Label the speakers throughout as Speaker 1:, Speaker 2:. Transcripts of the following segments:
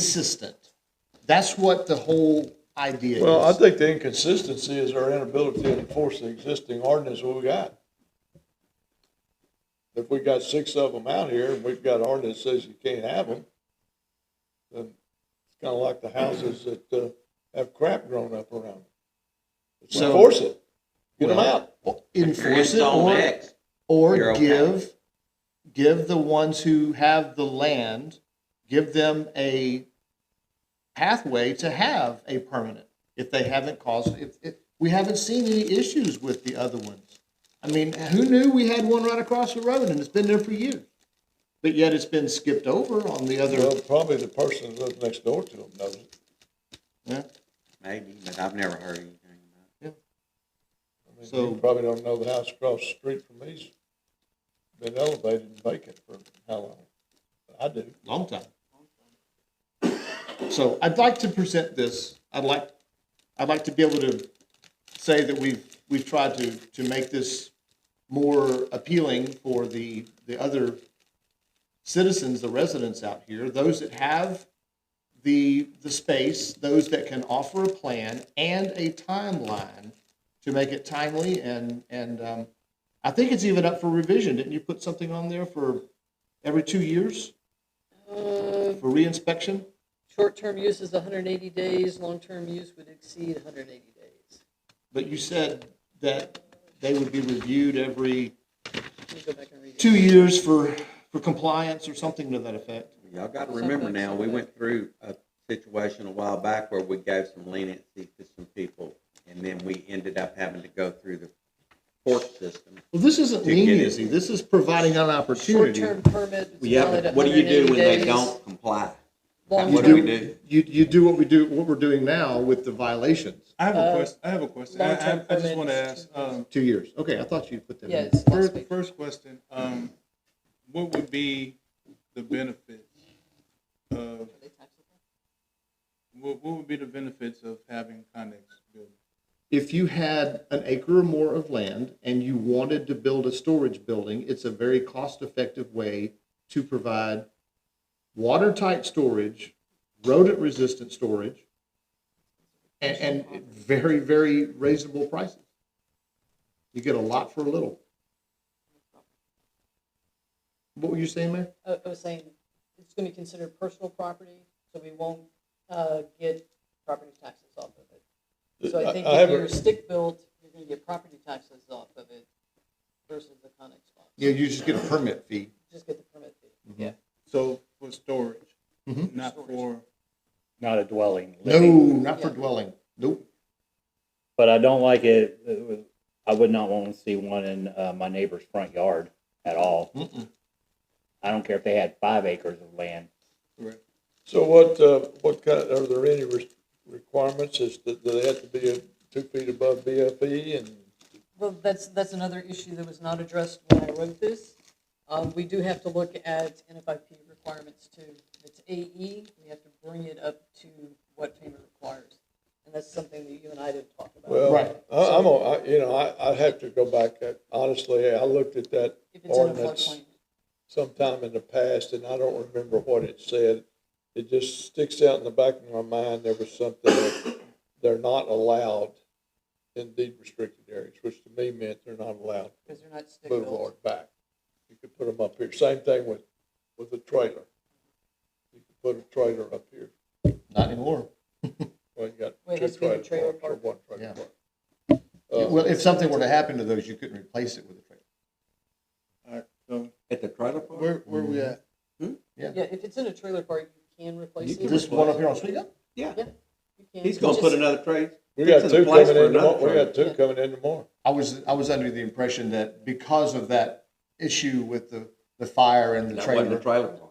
Speaker 1: consistent. That's what the whole idea
Speaker 2: Well, I
Speaker 1: is.
Speaker 2: think the inconsistency is our inability to enforce the existing ordinance we got. If we got six of them out here and we've got ordinance says you can't have them, then it's kind of like the houses that uh, have crap grown up around them. Let's
Speaker 1: So-
Speaker 2: Enforce it. Get them out.
Speaker 1: Enforce it or,
Speaker 3: Zone X. You're
Speaker 1: or
Speaker 3: okay.
Speaker 1: give, give the ones who have the land, give them a pathway to have a permanent if they haven't caused, if, if, we haven't seen any issues with the other ones. I mean, who knew we had one right across the road and it's been there for years? But yet it's been skipped over on the other,
Speaker 2: Well, probably the person that lives next door to them knows it.
Speaker 1: yeah.
Speaker 3: Maybe, but I've never heard anything about
Speaker 2: I mean,
Speaker 1: So-
Speaker 2: You probably don't know the house across the street from me's been elevated and vacant for how long? I do.
Speaker 1: Long time. So I'd like to present this, I'd like, I'd like to be able to say that we've, we've tried to, to make this more appealing for the, the other citizens, the residents out here, those that have the, the space, those that can offer a plan and a timeline to make it timely and, and, um, I think it's even up for revision. Didn't you put something on there for every two years?
Speaker 4: Uh,
Speaker 1: for reinspection?
Speaker 4: Short-term use is 180 days, long-term use would exceed 180 days.
Speaker 1: But you said that they would be reviewed every
Speaker 4: Let me go back and read it.
Speaker 1: two years for, for compliance or something to that effect.
Speaker 3: it. Y'all gotta remember now, we went through a situation a while back where we gave some leniency to some people, and then we ended up having to go through the court system.
Speaker 1: Well, this isn't
Speaker 3: To get it.
Speaker 1: leniency, this is providing an opportunity.
Speaker 4: Short-term permit is valid 180 days.
Speaker 3: what do you do when they don't comply? What do we
Speaker 4: Long-term,
Speaker 3: do?
Speaker 1: You, you do what we do, what we're doing now with the violations,
Speaker 5: I have
Speaker 4: Uh,
Speaker 5: a question. I have a question. I, I,
Speaker 4: long-term
Speaker 5: I just want to
Speaker 4: permits.
Speaker 5: ask. Um,
Speaker 1: two years. Okay, I thought you put that
Speaker 4: yeah,
Speaker 1: in.
Speaker 4: it's last
Speaker 5: first,
Speaker 4: week.
Speaker 5: first question. Um, what would be the benefits of what, what would be the benefits of having Connex building?
Speaker 1: If you had an acre or more of land and you wanted to build a storage building, it's a very cost-effective way to provide watertight storage, rodent-resistant storage, and, and at very, very reasonable prices. You get a lot for a little. What were you saying, Mayor?
Speaker 4: I I was Oh, saying, it's going to be considered personal property, so we won't uh, get property taxes off of it. So I think if
Speaker 2: have a-
Speaker 4: you're stick-built, you're going to get property taxes off of it versus the Conex box.
Speaker 1: Yeah, you just get a permit fee.
Speaker 4: Just get the permit fee, yeah.
Speaker 5: So for storage,
Speaker 1: Mhm.
Speaker 5: not for.
Speaker 6: not a dwelling.
Speaker 1: No,
Speaker 6: living.
Speaker 1: not for
Speaker 4: Yeah.
Speaker 1: dwelling. Nope.
Speaker 6: But I don't like it, I would not want to see one in, uh, my neighbor's front yard at all.
Speaker 1: Mm-mm.
Speaker 6: I don't care if they had five acres of land.
Speaker 2: So what, uh, what kind, are there any re- requirements, is, that- do they have to be uh, two feet above BFE and?
Speaker 4: Well, that's, that's another issue that was not addressed when I wrote this. Um, we do have to look at NFIP requirements too. If it's AE, we have to bring it up to what FEMA requires. And that's something that you and I didn't talk about.
Speaker 2: Well,
Speaker 1: Right.
Speaker 2: I, I'm, a- I, you know, I, I have to go back, uh, honestly, I looked at that
Speaker 4: If it's in a
Speaker 2: ordinance
Speaker 4: floodplain.
Speaker 2: sometime in the past, and I don't remember what it said. It just sticks out in the back of my mind, there was something that they're not allowed in deed restricted areas, which to me meant they're not allowed
Speaker 4: Because they're not stick built.
Speaker 2: boulevard back. You could put them up here. Same thing with, with a trailer. You could put a trailer up here.
Speaker 1: Not anymore.
Speaker 2: Well, you got
Speaker 4: Wait,
Speaker 2: two
Speaker 4: that's been a
Speaker 2: trailer
Speaker 4: trailer
Speaker 2: parks or
Speaker 4: park.
Speaker 2: one
Speaker 1: Yeah.
Speaker 2: trailer park. Uh,
Speaker 1: Well, if something were to happen to those, you couldn't replace it with a trailer.
Speaker 5: All right, so
Speaker 3: At the trailer park?
Speaker 5: where where we at?
Speaker 4: Yeah, if it's in a trailer park, you can replace
Speaker 3: You
Speaker 4: it.
Speaker 3: can
Speaker 1: This one up here on Sweet
Speaker 3: Yeah,
Speaker 4: You can.
Speaker 3: he's gonna
Speaker 4: Just-
Speaker 3: put another trailer.
Speaker 2: We got
Speaker 3: Fixing
Speaker 2: two
Speaker 3: the place
Speaker 2: coming
Speaker 3: for
Speaker 2: in tomorrow.
Speaker 3: another
Speaker 2: We got two
Speaker 4: trailer.
Speaker 2: coming in tomorrow.
Speaker 1: I was, I was under the impression that because of that issue with the, the fire and the
Speaker 3: That wasn't a
Speaker 1: trailer.
Speaker 3: trailer park.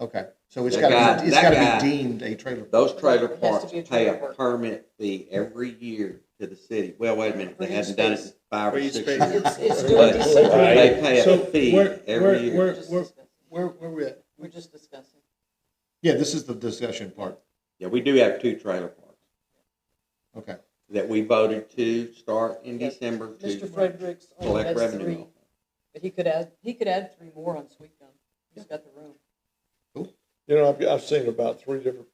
Speaker 1: Okay, so it's
Speaker 3: That
Speaker 1: gotta,
Speaker 3: guy-
Speaker 1: be- it's
Speaker 3: that
Speaker 1: gotta
Speaker 3: guy-
Speaker 1: be deemed a trailer.
Speaker 3: Those trailer
Speaker 4: It has to
Speaker 3: parks
Speaker 4: be a
Speaker 3: pay
Speaker 4: trailer
Speaker 3: a
Speaker 4: park.
Speaker 3: permit fee every year to the city. Well, wait a minute,
Speaker 4: For
Speaker 3: they
Speaker 4: each
Speaker 3: hadn't done it
Speaker 4: space.
Speaker 3: in five
Speaker 5: For
Speaker 3: or
Speaker 5: each
Speaker 3: six
Speaker 5: space.
Speaker 3: years.
Speaker 4: It's, it's doing
Speaker 3: But
Speaker 4: December.
Speaker 6: Right.
Speaker 3: they pay
Speaker 5: So
Speaker 3: a fee
Speaker 5: where- where-
Speaker 3: every year.
Speaker 5: where-
Speaker 4: We're just
Speaker 5: where-
Speaker 4: discussing.
Speaker 5: Where where we at?
Speaker 4: We're just discussing.
Speaker 1: Yeah, this is the discussion part.
Speaker 3: Yeah, we do have two trailer parks
Speaker 1: Okay,
Speaker 3: that we voted to start in
Speaker 4: Yes.
Speaker 3: December
Speaker 4: Mr.
Speaker 3: to
Speaker 4: Fredericks only
Speaker 3: collect
Speaker 4: has
Speaker 3: revenue.
Speaker 4: three, but he could add, he could add three more on Sweet Gum. He's got the room.
Speaker 2: You know, I've, I've seen about three different